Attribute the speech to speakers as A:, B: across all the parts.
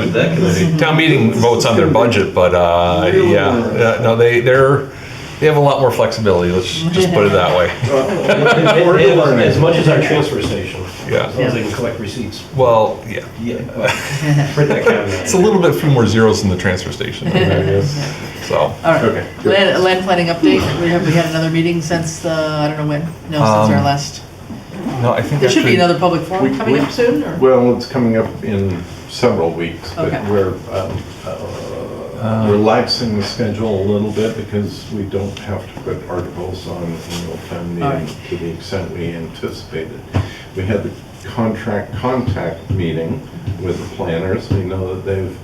A: with that committee.
B: Town meeting votes on their budget, but, uh, yeah, uh, no, they, they're, they have a lot more flexibility, let's just put it that way.
C: We're learning.
A: As much as our transfer station. As long
B: Yeah,
A: as they can collect receipts.
B: well, yeah,
A: Yeah. Print that caveat.
B: it's a little bit, few more zeros in the transfer station, so.
D: All right.
A: Okay.
D: Land, land planning update, we have, we had another meeting since the, I don't know when, no, since our
B: Um,
D: last,
B: No, I think
D: there should be
B: actually-
D: another public forum
C: we-
D: coming
C: we-
D: up soon, or?
C: Well, it's coming up in several weeks, but
D: Okay.
C: we're, um, uh, relaxing the schedule a little bit because we don't have to put articles on annual town
D: All right.
C: meeting to the extent we anticipated. We had the contract contact meeting with the planners. We know that they've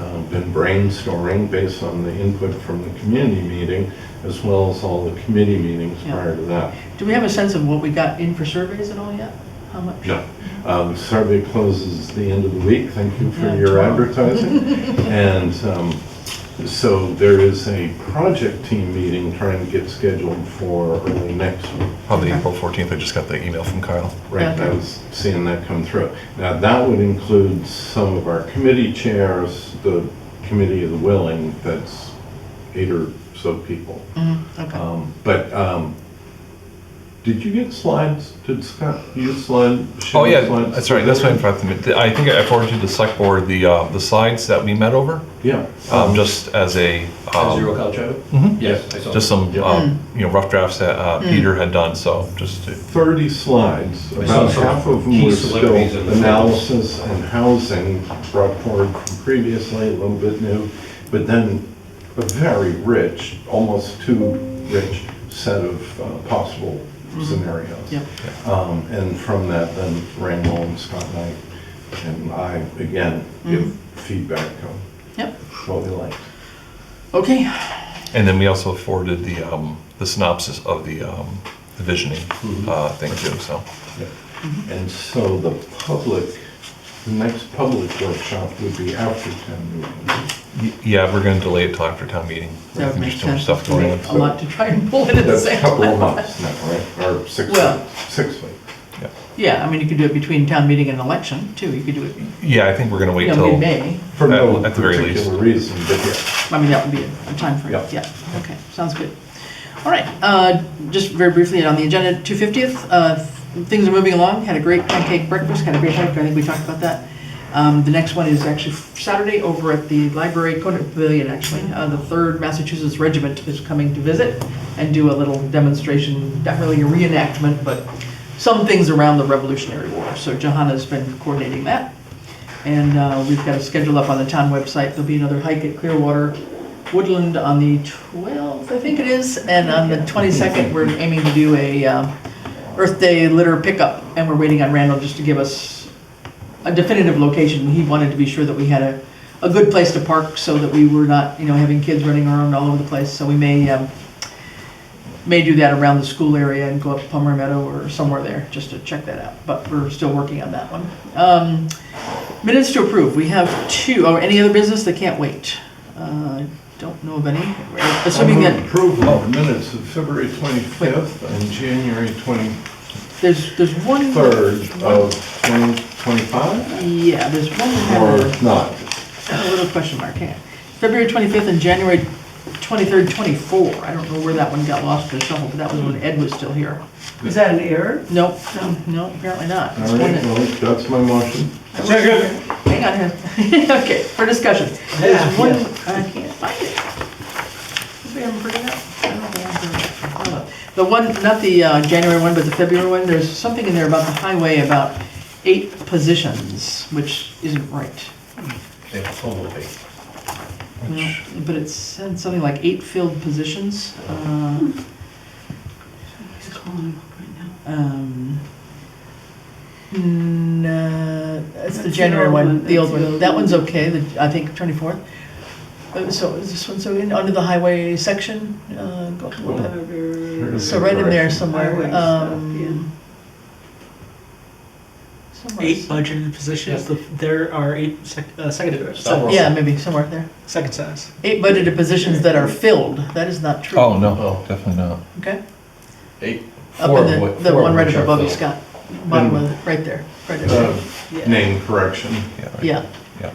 C: um, been brainstorming based on the input from the community meeting as well as all the committee meetings
D: Yeah.
C: prior to that.
D: Do we have a sense of what we got in for surveys at all yet? How much?
C: No. Um, Survey closes the end of the week. Thank you for
D: Yeah,
C: your
D: tomorrow.
C: advertising. And um, so there is a project team meeting trying to get scheduled for early next week.
B: Probably April 14th, I just got the email from Kyle.
C: Right, I
D: Okay.
C: was seeing that come through. Now, that would include some of our committee chairs, the committee of the willing, that's eight or so people.
D: Mhm,
B: Uh,
D: Okay.
C: Um, But um, did you get slides? Did Scott, you slide?
B: Oh,
C: share
B: yeah,
C: slides?
B: that's right, that's what I forgot to, men- I think I forwarded to the select board the, uh, the slides that we met over,
C: Yeah.
B: um, just as a,
A: As you
B: um,
A: roll call, Trevor?
B: mhm,
A: Yes, I saw.
B: just some, um, you know, rough drafts that, uh, Peter had done, so just to,
C: 30 slides,
A: I saw
C: about
A: some
C: half of them
A: key
C: were still
A: celebrities in the
C: analysis and housing brought forward from previously, a little bit new, but then a very rich, almost too rich set of uh, possible scenarios.
D: Yep.
C: Um, And from that, then Randall and Scott Knight and I, again, give feedback on
D: Yep.
C: what we liked.
D: Okay.
B: and then we also forwarded the, um, the synopsis of the, um, the visioning,
D: Mm-hmm.
B: uh, thing too, so.
C: And so the public, the next public workshop would be after town meeting.
B: Y- Yeah, we're gonna delay it till after town meeting.
D: That would make
B: There's too much
D: sense.
B: stuff going on.
D: A lot to try and pull in at the
C: That's a
D: same
C: couple of
D: time.
C: months now, right? Or six
D: Well-
C: weeks, six weeks.
D: Yeah, I mean, you could do it between town meeting and election, too, you could do it,
B: Yeah, I think we're gonna
D: you
B: wait
D: know,
B: till,
D: mid-May.
C: For no
B: At the very
C: particular reason, but yeah.
D: I mean, that would be a time frame.
C: Yeah.
D: yeah, okay, sounds good. All right, uh, just very briefly on the agenda, 250th, uh, things are moving along, had a great pancake breakfast, had a great hike, I think we talked about that. Um, The next one is actually Saturday over at the library, Conant Pavilion, actually. Uh, The 3rd Massachusetts Regiment is coming to visit and do a little demonstration, not really a reenactment, but some things around the Revolutionary War. So Johanna's been coordinating that. And uh, we've got a schedule up on the town website. There'll be another hike at Clearwater Woodland on the 12th, I think it is. And on the 22nd, we're aiming to do a um, Earth Day litter pickup. And we're waiting on Randall just to give us a definitive location. He wanted to be sure that we had a, a good place to park so that we were not, you know, having kids running around all over the place. So we may, um, may do that around the school area and go up Palmer Meadow or somewhere there, just to check that out. But we're still working on that one. Um, Minutes to approve, we have two, or any other business that can't wait? Uh, Don't know of any, assuming
C: I move
D: that,
C: Approval of minutes of February 25th and January 23rd
D: there's, there's one.
C: of 2025?
D: Yeah, there's one that had
C: Or not?
D: a- a little question mark, yeah. February 25th and January 23rd, 24, I don't know where that one got lost in the shuffle, but that was when Ed was still here.
E: Is that an error?
D: Nope, no, apparently not. It's
C: All
D: one
C: right,
D: that-
C: well, that's my motion.
D: Hang on, hang on. okay, for discussion. There's one, I can't find it. Maybe I'm bringing it up. I don't know where I'm bringing it up. Hold on. The one, not the uh, January one, but the February one, there's something in there about the highway about eight positions, which isn't right.
A: Yeah, totally.
D: No, But it said something like eight filled positions. uh,
E: Hmm. He's calling him up right now.
D: um, n- uh, It's
E: That's
D: the
E: the
D: January
E: old
D: one,
E: one,
D: the old
E: that's the
D: one.
E: old
D: That
E: one.
D: one's okay, the, I think, 24th. Uh, So is this one, so in, under the highway section? uh, go up a little bit.
E: Powder.
D: So right in there somewhere.
E: Highway stuff,
D: um, somewhere
F: Eight
D: s-
F: budgeted positions, The- there are eight sec- uh, secondary,
D: so- Yeah, maybe somewhere there.
F: second size.
D: Eight budgeted positions that are filled, that is not true.
B: oh, no, definitely not.
D: Okay?
A: Eight.
D: Up
A: Four
D: in
A: of
D: the,
A: what-
D: the
A: four of
D: one right
A: which
D: up
A: are
D: above you,
A: filled.
D: Scott. Bottom of, the- right there, right there.
C: Uh, Name correction.
B: Yeah, right.
D: Yeah.
B: Yeah.